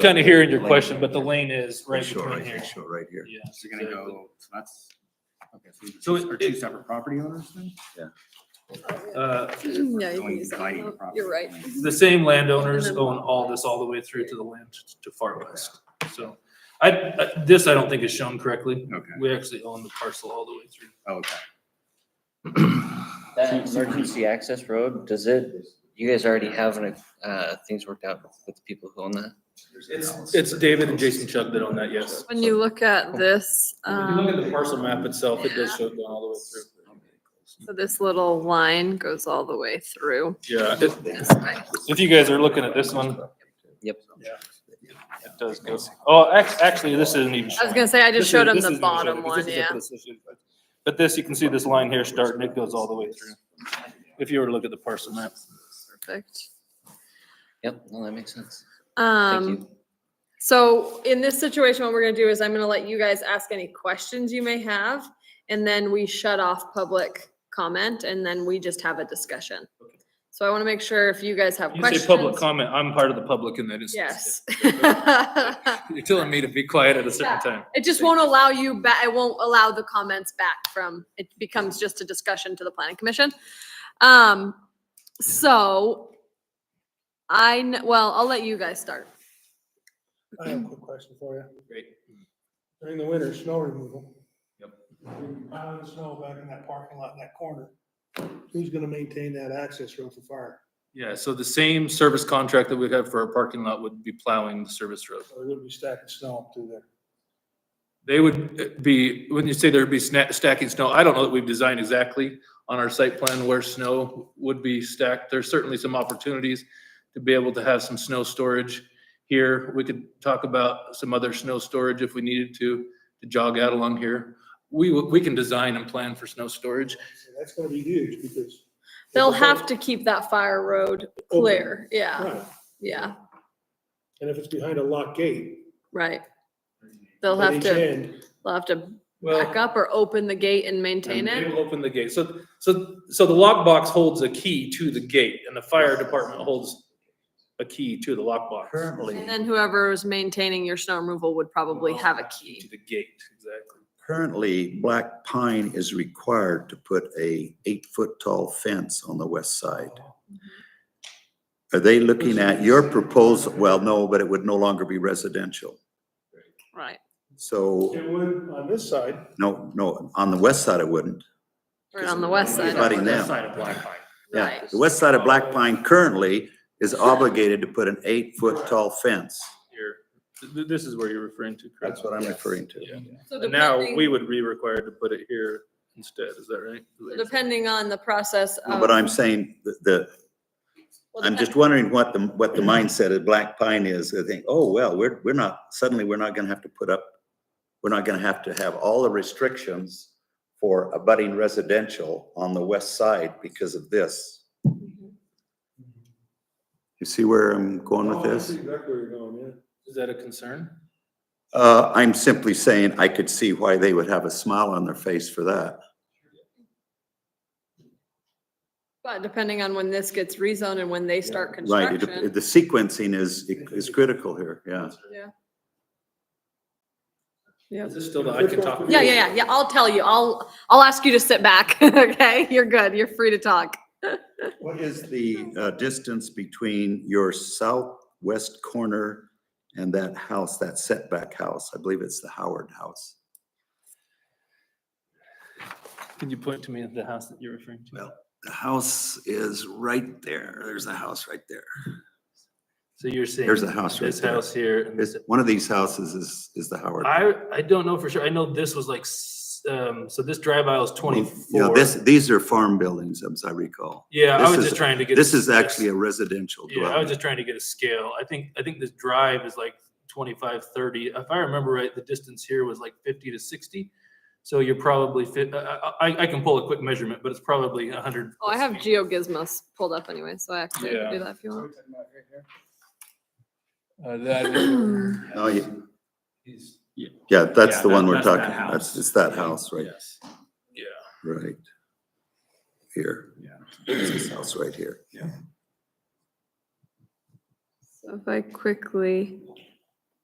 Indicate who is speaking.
Speaker 1: Kind of hearing your
Speaker 2: Lane.
Speaker 1: question, but the lane is right
Speaker 2: Sure,
Speaker 1: between here.
Speaker 2: Sure, right here.
Speaker 1: Yeah.
Speaker 3: So you're gonna go, so that's, okay, so
Speaker 1: So
Speaker 3: these are
Speaker 1: it-
Speaker 3: two separate property owners then?
Speaker 1: Uh,
Speaker 4: Yeah, you
Speaker 3: Going
Speaker 4: can use that.
Speaker 3: dividing the
Speaker 4: one.
Speaker 3: property
Speaker 4: You're right.
Speaker 3: line.
Speaker 1: the same landowners own all this all the way through to the land to far west. So I, I- this I don't think is shown correctly.
Speaker 3: Okay,
Speaker 1: We actually own the parcel all the way through.
Speaker 3: oh, okay.
Speaker 5: That emergency access road, does it, you guys already have, an, uh, things worked out with the people who own that?
Speaker 1: It's, it's David and Jason Chubb that own that, yes.
Speaker 4: When you look at this,
Speaker 1: If you look at the
Speaker 4: um,
Speaker 1: parcel map itself, it does show it going all the way through.
Speaker 4: so this little line goes all the way through.
Speaker 1: Yeah, it-
Speaker 4: It's nice.
Speaker 1: if you guys are looking at this one,
Speaker 5: Yep.
Speaker 1: it does go. Oh, ac- actually, this isn't even
Speaker 4: I
Speaker 1: showing.
Speaker 4: was gonna say, I just
Speaker 1: This
Speaker 4: showed
Speaker 1: is-
Speaker 4: him
Speaker 1: this
Speaker 4: the
Speaker 1: isn't even showing
Speaker 4: bottom
Speaker 1: because
Speaker 4: one,
Speaker 1: this is a
Speaker 4: yeah.
Speaker 1: position. But this, you can see this line here starting, it goes all the way through. If you were to look at the parcel map.
Speaker 4: Perfect.
Speaker 5: Yep, no, that makes sense. Thank
Speaker 4: Um,
Speaker 5: you.
Speaker 4: so in this situation, what we're gonna do is I'm gonna let you guys ask any questions you may have. And then we shut off public comment and then we just have a discussion. So I wanna make sure if you guys have
Speaker 1: You say public
Speaker 4: questions.
Speaker 1: comment, I'm part of the public in that instance.
Speaker 4: Yes.
Speaker 1: You're telling me to be quiet at a certain
Speaker 4: Yeah.
Speaker 1: time.
Speaker 4: It just won't allow you back, it won't allow the comments back from, it becomes just a discussion to the planning commission. Um, so I, kn- well, I'll let you guys start.
Speaker 6: I have a quick question for you.
Speaker 1: Great.
Speaker 6: During the winter, snow removal.
Speaker 1: Yep.
Speaker 6: Piling snow back in that parking lot, in that corner. Who's gonna maintain that access road for fire?
Speaker 1: Yeah, so the same service contract that we'd have for our parking lot would be plowing the service road.
Speaker 6: So they're gonna be stacking snow up through there.
Speaker 1: They would be, when you say there'd be sna- stacking snow, I don't know that we've designed exactly on our site plan where snow would be stacked. There's certainly some opportunities to be able to have some snow storage here. We could talk about some other snow storage if we needed to, to jog out along here. We, w- we can design and plan for snow storage.
Speaker 6: So That's gonna be huge because.
Speaker 4: They'll have to keep that fire road clear. Yeah,
Speaker 6: Right,
Speaker 4: yeah,
Speaker 6: and if it's behind a locked gate.
Speaker 4: right. They'll
Speaker 6: at
Speaker 4: have
Speaker 6: each
Speaker 4: to,
Speaker 6: end,
Speaker 4: they'll have to back up or open the gate and
Speaker 1: And
Speaker 4: maintain
Speaker 1: They
Speaker 4: it.
Speaker 1: will open the gate. So, so, so the lockbox holds a key to the gate and the fire department holds a key to the lockbox.
Speaker 4: And
Speaker 2: Currently,
Speaker 4: then whoever is maintaining your snow removal would probably have a
Speaker 1: To
Speaker 4: key.
Speaker 1: the gate, exactly.
Speaker 2: currently, Black Pine is required to put a eight-foot tall fence on the west side.
Speaker 4: Oh.
Speaker 2: Are they looking at your proposal? Well, no, but it would no longer be residential.
Speaker 4: Right,
Speaker 2: So,
Speaker 6: It would on this side.
Speaker 2: no, no, on the west side it wouldn't.
Speaker 4: right on the west
Speaker 2: Nobody's
Speaker 4: side.
Speaker 2: letting
Speaker 4: of it.
Speaker 2: them.
Speaker 1: Side of Black Pine.
Speaker 2: Yeah,
Speaker 4: Right.
Speaker 2: the west side of Black Pine currently is obligated to put an eight-foot tall fence.
Speaker 1: Here, Th- th- this is where you're referring to, correct?
Speaker 2: That's what I'm referring to.
Speaker 1: Yeah.
Speaker 4: So
Speaker 1: And now
Speaker 4: depending-
Speaker 1: we would be required to put it here instead, is that right?
Speaker 4: Depending on the process of.
Speaker 2: But I'm saying the- the,
Speaker 4: well,
Speaker 2: I'm
Speaker 4: depen-
Speaker 2: just wondering what the, what the mindset of Black Pine is. They think, oh, well, we're, we're not, suddenly we're not gonna have to put up, we're not gonna have to have all the restrictions for abutting residential on the west side because of this. You see where I'm going with
Speaker 6: Oh, I see
Speaker 2: this?
Speaker 6: Exactly where you're going, yeah.
Speaker 1: Is that a concern?
Speaker 2: Uh, I'm simply saying I could see why they would have a smile on their face for that.
Speaker 4: But depending on when this gets rezoned and when they start
Speaker 2: Right, it-
Speaker 4: construction.
Speaker 2: the sequencing is, is critical here, yeah.
Speaker 4: Yeah.
Speaker 1: Is this still, the- I could talk.
Speaker 4: Yeah, yeah, yeah, yeah. I'll tell you. I'll, I'll ask you to sit back. Okay, you're good. You're free to talk.
Speaker 2: What is the uh, distance between your southwest corner and that house, that setback house? I believe it's the Howard House.
Speaker 1: Can you point to me at the house that you're referring to?
Speaker 7: Well- The house is right there. There's a house right there.
Speaker 1: So you're saying.
Speaker 2: There's the house right
Speaker 1: This
Speaker 2: there.
Speaker 1: house here. and
Speaker 2: Is,
Speaker 1: this-
Speaker 2: one of these houses is, is the Howard.
Speaker 1: I, I don't know for sure. I know this was like, s- um, so this drive aisle is
Speaker 2: Yeah,
Speaker 1: twenty-four.
Speaker 2: this, these are farm buildings, as I recall.
Speaker 1: Yeah, I
Speaker 2: this
Speaker 1: was
Speaker 2: is-
Speaker 1: just trying to get.
Speaker 2: This is
Speaker 1: a-
Speaker 2: actually a residential
Speaker 1: Yeah, I was
Speaker 2: dwelling.
Speaker 1: just trying to get a scale. I think, I think this drive is like 25, 30. If I remember right, the distance here was like 50 to 60. So you're probably fit, I, I, I can pull a quick measurement, but it's probably 100.
Speaker 4: Oh, I have GeoGizmos pulled up anyway, so I actually
Speaker 1: Yeah.
Speaker 4: can do that if you want.
Speaker 2: Uh, Oh, yeah,
Speaker 1: Yeah.
Speaker 2: Yeah, that's
Speaker 1: Yeah,
Speaker 2: the one
Speaker 1: that-
Speaker 2: we're
Speaker 1: that's that
Speaker 2: talking,
Speaker 1: house.
Speaker 2: that's, it's that house right,
Speaker 1: Yes. Yeah.
Speaker 2: right. Here.
Speaker 3: Yeah.
Speaker 2: It's this house right here.
Speaker 4: So If I quickly